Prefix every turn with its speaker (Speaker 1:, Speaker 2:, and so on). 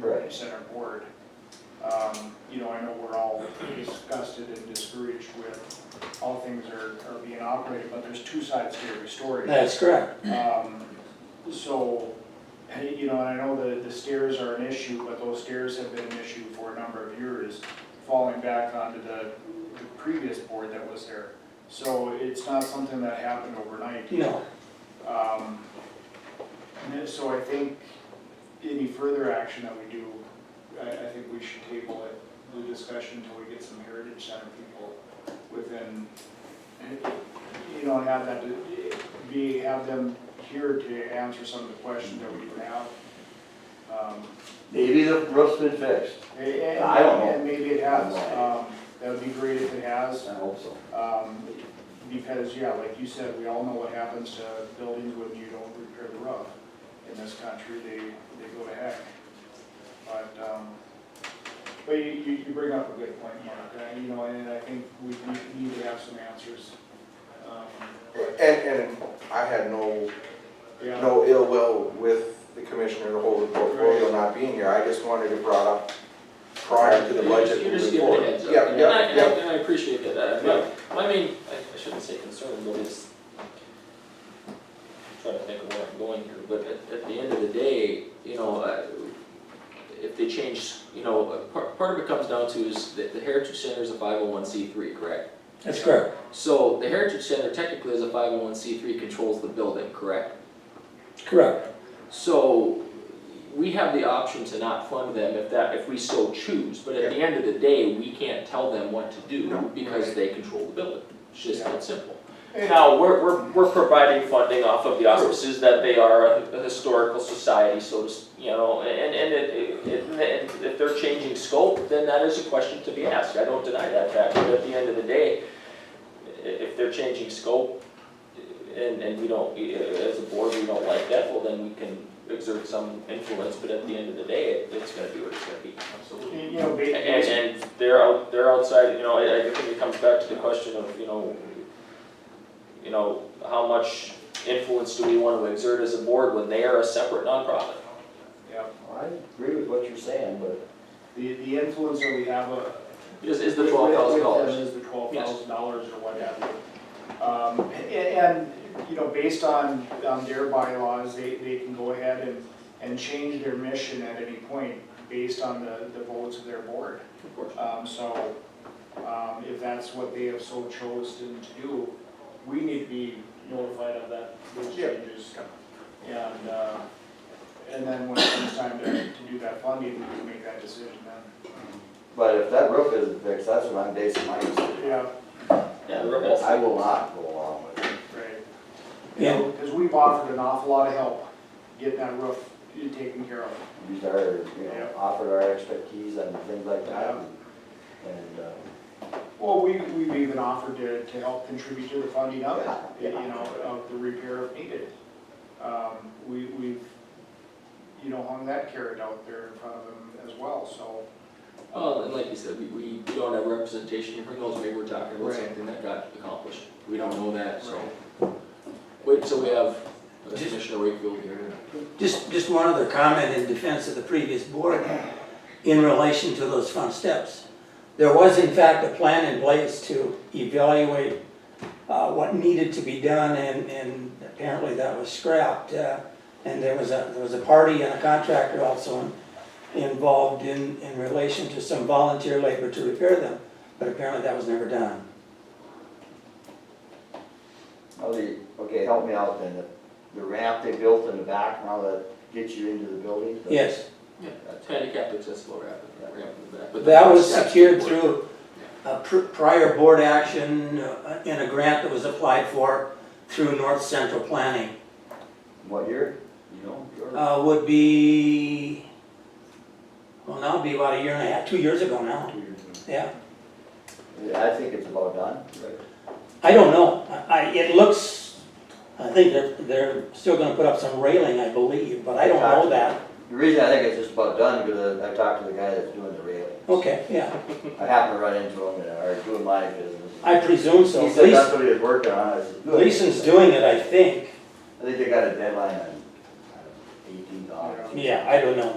Speaker 1: place in our board. Um, You know, I know we're all disgusted and discouraged with how things are, are being operated, but there's two sides to every story.
Speaker 2: That's correct.
Speaker 1: Um, so, hey, you know, I know the, the stairs are an issue, but those stairs have been an issue for a number of years, falling back onto the, the previous board that was there. So it's not something that happened overnight.
Speaker 2: No,
Speaker 1: Um, and so I think any further action that we do, I, I think we should table it, the discussion until we get some Heritage Center people within, you know, have that, be, have them here to answer some of the questions that we do have. Um,
Speaker 3: Maybe the roof's been fixed.
Speaker 1: and- and-
Speaker 3: I don't know.
Speaker 1: And maybe it has, um, that would be great if it has.
Speaker 3: I hope so.
Speaker 1: Um, because, yeah, like you said, we all know what happens to buildings when you don't repair the roof. In this country, they, they go to heck. But, um, but you, you, you bring up a good point, Mark, uh, you know, and I think we we need to have some answers. Um,
Speaker 4: And, and I had no,
Speaker 1: Yeah,
Speaker 4: no ill will with the commissioner, the whole portfolio not being here, I just wanted it brought up prior to the budget
Speaker 5: You're
Speaker 4: moving
Speaker 5: just giving a
Speaker 4: forward.
Speaker 5: heads up.
Speaker 4: Yeah,
Speaker 5: And I,
Speaker 4: yeah,
Speaker 5: and I-
Speaker 4: yeah,
Speaker 5: and I appreciate that, uh, my, my main, I I shouldn't say concern, but it's, I'm trying to think of where I'm going here, but at, at the end of the day, you know, uh, if they change, you know, uh, part, part of it comes down to is that the Heritage Center is a five oh one C three, correct?
Speaker 2: that's correct.
Speaker 5: So the Heritage Center technically is a five oh one C three, controls the building, correct?
Speaker 2: Correct.
Speaker 5: So, we have the option to not fund them if that, if we so choose, but at the end of the day, we can't tell them what to do because they control the building. It's just that simple. Now, we're, we're, we're providing funding off of the auspices that they are a historical society, so to, s- you know, and, and it, it, and if they're changing scope, then that is a question to be asked, I don't deny that fact, but at the end of the day, i- if they're changing scope, and, and we don't, as a board, we don't like that, well, then we can exert some influence, but at the end of the day, it- it's gonna be what it's gonna be. Absolutely.
Speaker 1: you know,
Speaker 5: And,
Speaker 1: ba-
Speaker 5: and they're out, they're outside, you know, I, I think it comes back to the question of, you know, you know, how much influence do we wanna exert as a board when they are a separate nonprofit?
Speaker 1: yeah,
Speaker 3: I agree with what you're saying, but.
Speaker 1: the, the influence that we have, uh,
Speaker 5: Is, is the twelve thousand
Speaker 1: With them
Speaker 5: dollars?
Speaker 1: Is the twelve thousand dollars or what have you. Um, a- and, you know, based on, on their bylaws, they, they can go ahead and, and change their mission at any point based on the, the votes of their board.
Speaker 5: Of course.
Speaker 1: Um, so, um, if that's what they have so chosen to do, we need to be notified of that, those
Speaker 4: Yeah.
Speaker 1: changes. And, uh, and then when it comes time to, to do that funding, we can make that decision then.
Speaker 3: But if that roof isn't fixed, that's what I'm basing my decision.
Speaker 1: Yeah,
Speaker 5: Yeah, the rest-
Speaker 3: I will not go along with it.
Speaker 1: right. You
Speaker 2: Yeah,
Speaker 1: know, because we've offered an awful lot of help getting that roof taken care of.
Speaker 3: Use our, you
Speaker 1: Yeah.
Speaker 3: know, offered our expertise and things like that. and- And, uh,
Speaker 1: Well, we, we've even offered to, to help contribute to the funding of it, you
Speaker 3: Yeah.
Speaker 1: know, of the repair if needed. Um, we, we've, you know, hung that carrot out there in front of them as well, so.
Speaker 5: Well, and like you said, we, we we don't have representation, who knows, maybe we're talking about
Speaker 1: Right.
Speaker 5: something that got accomplished, we don't know that, so. Wait until we have Commissioner Wakefield here.
Speaker 2: just, just one other comment in defense of the previous board in relation to those front steps. There was in fact a plan in place to evaluate uh, what needed to be done and, and apparently that was scrapped. uh, And there was a, there was a party and a contractor also in- involved in, in relation to some volunteer labor to repair them, but apparently that was never done.
Speaker 3: I'll be- okay, help me out then. The- The ramp they built in the back, now that gets you into the building? but-
Speaker 2: Yes.
Speaker 5: Yeah, handicap accessible ramp, ramp in the back. but the
Speaker 2: That was
Speaker 5: steps
Speaker 2: secured
Speaker 5: were-
Speaker 2: through a pr- prior board action uh, in a grant that was applied for through North Central Planning.
Speaker 3: What year? You know? your-
Speaker 2: Uh, Would be, well, now it'd be about a year and a half, two years ago now,
Speaker 3: two years.
Speaker 2: yeah.
Speaker 3: I think it's about done.
Speaker 2: I don't know, I, I- it looks, I think they're, they're still gonna put up some railing, I believe, but I don't know that.
Speaker 3: The reason I think it's just about done, because I I talked to the guy that's doing the railing.
Speaker 2: Okay, yeah,
Speaker 3: I happened to run into him, and- or doing my business.
Speaker 2: I presume so.
Speaker 3: He said that's
Speaker 2: Gleason-
Speaker 3: what he was working on, I said, good.
Speaker 2: Gleason's doing it, I think,
Speaker 3: I think they got a deadline on eighteen dollars.
Speaker 2: yeah, I don't know.